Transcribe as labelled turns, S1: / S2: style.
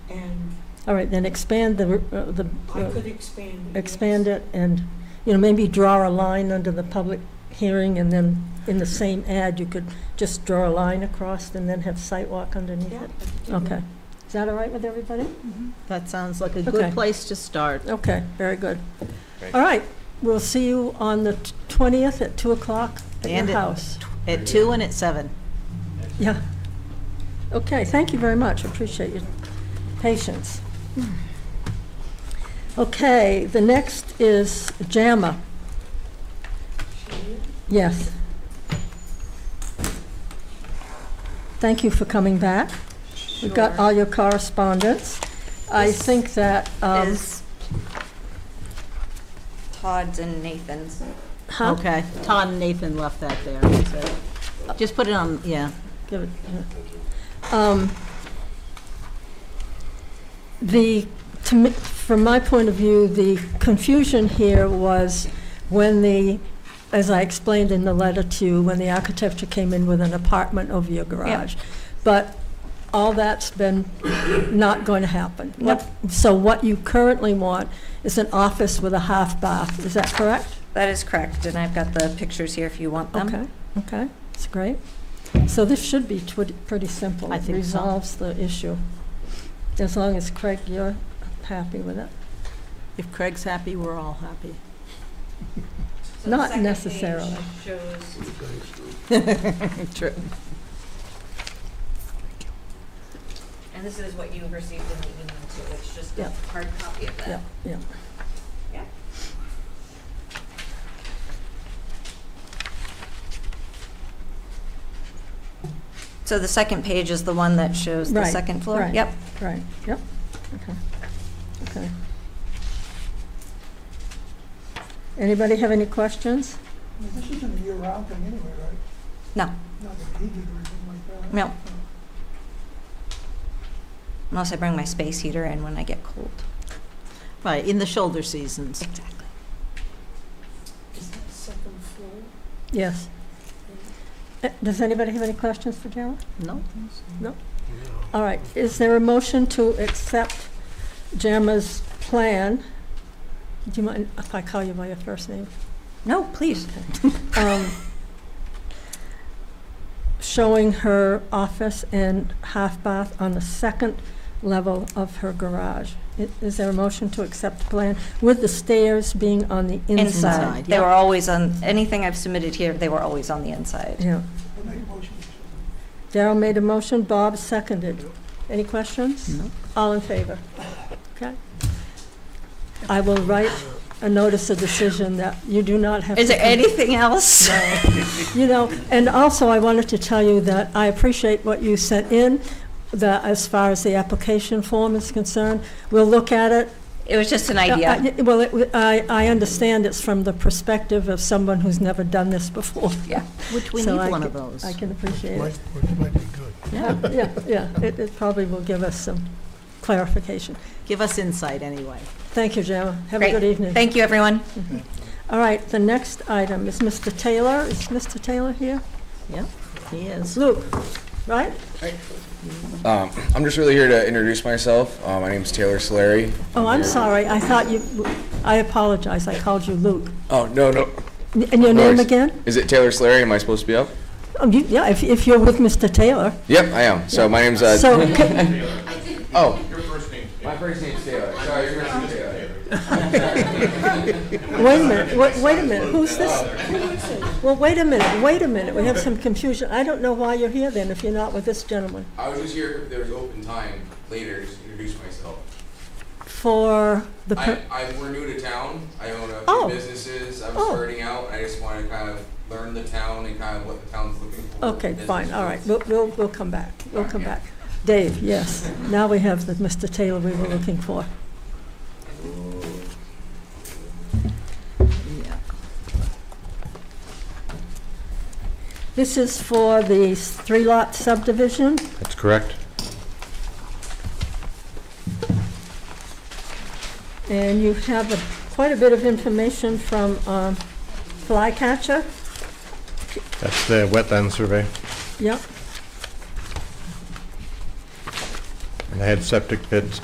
S1: All right, then expand the, uh, the,
S2: I
S1: uh,
S2: could expand it.
S1: expand it and, you know, maybe draw a line under the public hearing and then in the same ad, you could just draw a line across and then have sidewalk underneath
S2: Yeah.
S1: it. Okay. Is that all right with everybody?
S3: That sounds like a
S1: Okay.
S3: good place to start.
S1: Okay, very good.
S4: Great.
S1: All right, we'll see you on the t- 20th at 2 o'clock at your
S3: And it-
S1: house.
S3: At two and at seven.
S1: Yeah. Okay, thank you very much, appreciate your patience. Okay, the next is JAMA. Yes. Thank you for coming back. We've got all your correspondence. I
S5: This
S1: think that, um,
S5: is Todd's and Nathan's.
S1: huh?
S3: Okay. Todd and Nathan left that there, so just put it on, yeah.
S1: Give it, yeah. Um, The, to me, from my point of view, the confusion here was when the, as I explained in the letter to you, when the architecture came in with an apartment over your garage. But all that's been not going to happen. What- So what you currently want is an office with a half bath, is that correct?
S5: That is correct, and I've got the pictures here if you want them.
S1: Okay, okay, that's great. So this should be twi- pretty simple.
S3: I
S1: It
S3: think so.
S1: Resolves the issue, as long as Craig, you're happy with it.
S3: If Craig's happy, we're all happy.
S1: the Not second page necessarily.
S2: Shows
S3: True.
S5: and this is what you received in the email too, it's just
S1: a Yep.
S5: hard copy of
S1: Yeah, yeah.
S5: Yeah. So the second page is the one that shows the
S1: Right,
S5: second floor?
S1: right.
S5: Yep.
S1: Right, yep, okay, okay. Anybody have any questions?
S6: I mean, This isn't a year-round thing anyway, right?
S5: No.
S6: Not that he did or anything like that.
S5: No. Unless I bring my space heater in when I get cold.
S3: Right, in the shoulder seasons.
S5: Exactly.
S2: is that second floor?
S1: Yes. Uh, Does anybody have any questions for Jana?
S3: No?
S1: All right, is there a motion to accept JAMA's plan? Do you mind if I call you by your first name?
S5: No, please.
S1: um, showing her office and half bath on the second level of her garage. I- Is there a motion to accept the plan with the stairs being on the inside?
S3: Inside,
S5: They
S3: yeah.
S5: were always on, anything I've submitted here, they were always on the inside.
S1: Yeah.
S6: I make a motion.
S1: Daryl made a motion, Bob seconded. Any questions?
S3: No?
S1: All in favor? Okay. I will write a notice of decision that you do not have to...
S5: Is there
S1: come-
S5: anything else?
S1: You know, and also I wanted to tell you that I appreciate what you sent in, the, as far as the application form is concerned. We'll look at it.
S5: It was just an idea.
S1: Uh, I- Well, it- I, I understand it's from the perspective of someone who's never done this before.
S5: Yeah.
S3: Which we
S1: So I
S3: need one of
S1: ca-
S3: those.
S1: I can appreciate it.
S6: which might be good.
S1: Yeah, yeah, yeah. It, it probably will give us some clarification.
S3: Give us insight, anyway.
S1: Thank you, Gemma. Have a
S5: Great.
S1: good evening.
S5: Thank you, everyone.
S1: All right, the next item is Mr. Taylor. Is Mr. Taylor here?
S3: Yep, he is.
S1: Luke, right?
S4: Um, I'm just really here to introduce myself. Uh, my name's Taylor Solari.
S1: Oh, I'm sorry, I thought you, I apologize, I called you Luke.
S4: Oh, no, no.
S1: And your
S4: no
S1: name
S4: worries.
S1: again?
S4: Is it Taylor Solari? Am I supposed to be up?
S1: Oh, you- Yeah, if, if you're with Mr. Taylor.
S4: Yep, I am. So my name's, uh,
S1: So, ca-
S4: oh. Your first name. My first name's Taylor. Sorry, your first name's Taylor.
S1: wait a minute, wait, wait a minute, who's this? Well, wait a minute, wait a minute, we have some confusion. I don't know why you're here then, if you're not with this gentleman.
S4: I was just here if there was open time later to introduce myself.
S1: For the,
S4: I,
S1: per-
S4: I, we're new to town. I own a few
S1: Oh.
S4: businesses. I was
S1: Oh.
S4: starting out. I just want to kind of learn the town and kind of what the town's looking for.
S1: okay,
S4: business
S1: fine, all right,
S4: wise.
S1: we'll, we'll, we'll come back, we'll come back. Dave, yes, now we have the Mr. Taylor we were looking for.
S3: Yeah.
S1: This is for the three-lot subdivision.
S7: That's correct.
S1: And you have a- quite a bit of information from um, Flycatcher.
S7: That's the wetland survey.
S1: Yep.
S7: And I had septic pits